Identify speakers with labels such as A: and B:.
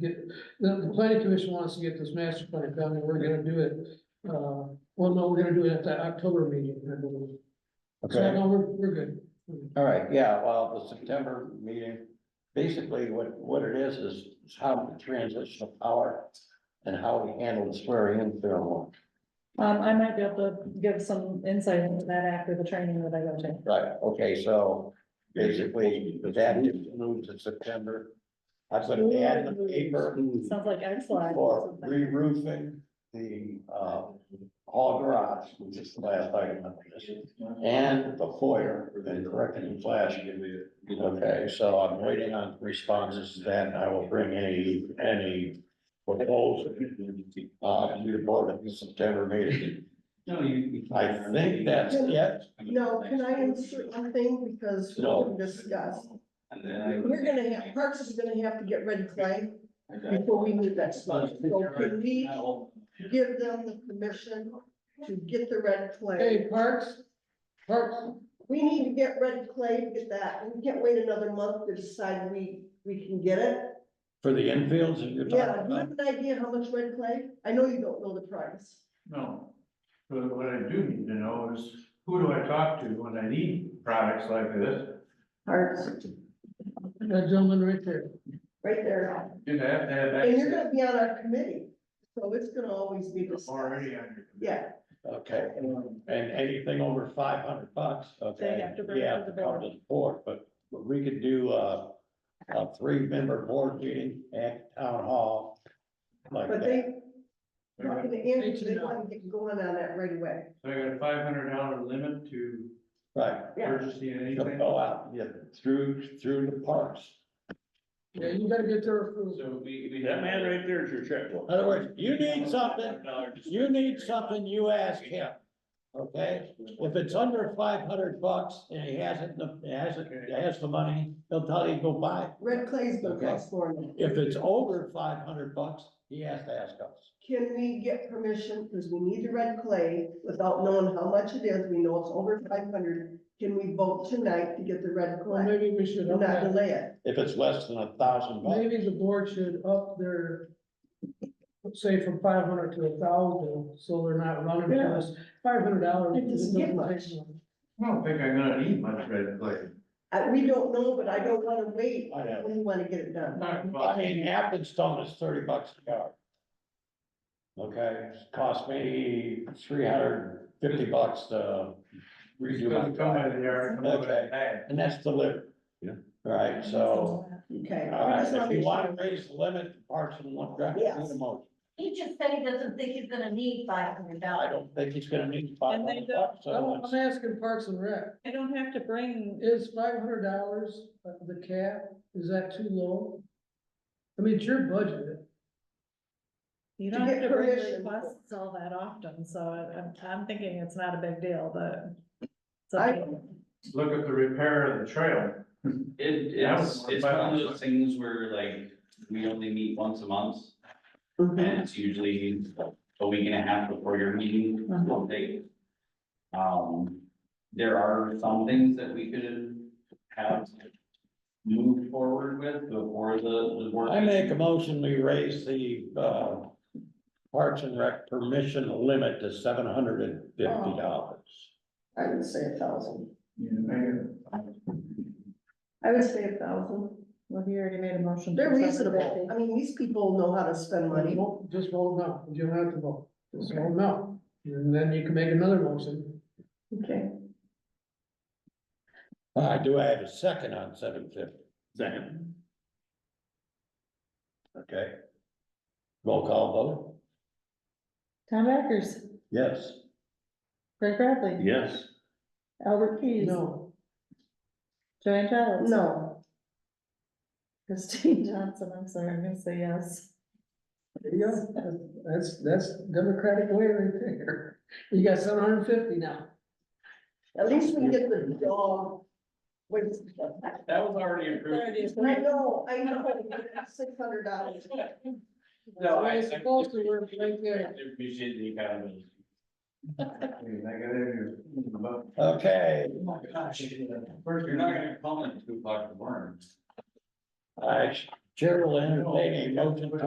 A: get, the, the planning commission wants to get this master plan done, and we're gonna do it. Uh, well, no, we're gonna do it at the October meeting, I believe. So,
B: Okay,
A: no, we're, we're good.
B: all right, yeah, well, the September meeting, basically what, what it is, is is how the transition of power and how we handle the swearing in ceremony.
C: Um, I might be able to give some insight into that after the training that I go to.
B: Right, okay, so basically, that moves to September. I put an ad in the paper
C: Sounds like excellent.
B: for re-roofing the, uh, hall garage, which is the last item on this. And the foyer, and correcting the flash. Okay, so I'm waiting on responses to that, and I will bring any, any proposal. Uh, to the board at the September meeting.
D: No, you.
B: I think that's it.
E: No, can I insert one thing because we
B: No.
E: can discuss?
D: And then I.
E: We're gonna have, Parks is gonna have to get red clay before we move that stuff. So can we give them the permission to get the red clay?
A: Hey, Parks, Parks,
E: We need to get red clay to get that. We can't wait another month to decide we, we can get it.
B: For the infields, if you're
E: Yeah,
B: talking
E: do you
B: about.
E: have an idea how much red clay? I know you don't know the price.
F: No, but what I do need to know is, who do I talk to when I need products like this?
E: Parks,
A: that gentleman right there.
E: right there.
F: You have to have
E: And you're
F: access
E: gonna be on our committee, so it's gonna always be discussed.
F: already on your.
E: Yeah.
B: Okay, and anything over five hundred bucks, okay?
C: They have to bring it
B: yeah,
C: to the
B: come to Board, but but we could do a, a three-member board meeting at town hall. Like
E: But
B: that,
E: they, talking to Andrew, they want to get going on that right away.
F: So I got a five hundred dollar limit to
B: right,
E: Yeah.
F: purchasing
B: They'll
F: anything.
B: go out, yeah, through, through the parks.
A: Yeah, you gotta get their approval.
F: So we, we.
G: That man right there is your checkbook.
B: In other words, you need something, you need something, you ask him, okay? If it's under five hundred bucks and he hasn't, he hasn't, he has the money, he'll tell you, go buy. it.
E: Red clay's gonna
B: Okay.
E: cost more now.
B: If it's over five hundred bucks, he has to ask us.
E: Can we get permission, because we need the red clay, without knowing how much it is, we know it's over five hundred. Can we vote tonight to get the red
A: Well,
E: clay
A: maybe we should
E: and
A: up
E: not
A: that.
E: delay it?
B: If it's less than a thousand bucks,
A: Maybe the board should up their, let's say from five hundred to a thousand, so they're not running to us. Five hundred dollars.
E: It doesn't get much.
F: I don't think I'm gonna need much red clay.
E: I, we don't know, but I don't wanna wait,
B: I know.
E: we wanna get it done.
F: Talk
B: I
F: about-
B: mean, Appenstone is thirty bucks a yard. Okay, it's cost me three hundred fifty bucks to
F: It's
B: redo my
F: gonna come out
B: drive,
F: of the yard, come over
B: Okay.
F: the bag.
B: and that's delivered.
G: Yeah.
B: Right, so,
E: Okay.
B: all
E: I
B: right,
E: just wanna
B: if you
E: make
B: wanna
E: sure.
B: raise the limit, parks and one drive,
E: Yes.
B: need a motion.
H: He just said he doesn't think he's gonna need five hundred
B: I
H: dollars.
B: don't think he's gonna need five
C: And they
B: hundred
C: don't-
B: bucks, so
A: I'm
B: it's,
A: asking Parks and Rec.
C: I don't have to bring,
A: Is five hundred dollars uh, the cap, is that too low? I mean, it's your budget,
C: you
E: To
C: don't
E: get
C: have to bring
E: permission.
C: requests all that often, so I- I'm, I'm thinking it's not a big deal, but. so-
E: I-
F: Look at the repair of the trail.
D: It,
F: Yeah, I
D: it's,
F: would-
D: it's one of those things where like, we only meet once a month, and
B: Mm-hmm.
E: Mhm.
D: it's usually a week and a half before your meeting,
B: Mm-hmm.
C: Uh-huh.
D: one day. Um, there are some things that we could have moved forward with before the, the board.
B: I make a motion, we raise the, uh, parks and rec permission limit to seven hundred and
H: Oh.
B: fifty dollars.
E: I would say a thousand.
F: You know,
E: I would say a thousand.
C: Well, you already made a motion.
E: They're
C: for seven
E: reasonable.
C: fifty.
E: I mean, these people know how to spend money.
A: Vote- just vote no, you don't have to vote, just vote no, and then you can make another motion.
E: Okay.
B: Uh, do I have a second on seven fifty?
G: Second.
B: Okay. Roll call vote?
C: Tom Eckers,
B: Yes.
C: Greg Bradley,
G: Yes.
C: Albert Keys,
A: No,
C: Joanne Jennings.
E: No.
C: Christine Johnson, I'm sorry, I'm gonna say yes.
A: there you go, that's, that's democratic way right there, you got seven hundred and fifty now.
E: At least we get the dog. Wait,
D: That was already approved.
E: I know, I know, six hundred dollars.
D: No, I-
A: That's the way it's supposed to work right there.
D: Appreciate the accountability.
F: I gotta do. But
B: Okay,
D: Oh my gosh. First, you're not gonna call it two o'clock in the morning.
B: I, Chair will entertain a motion to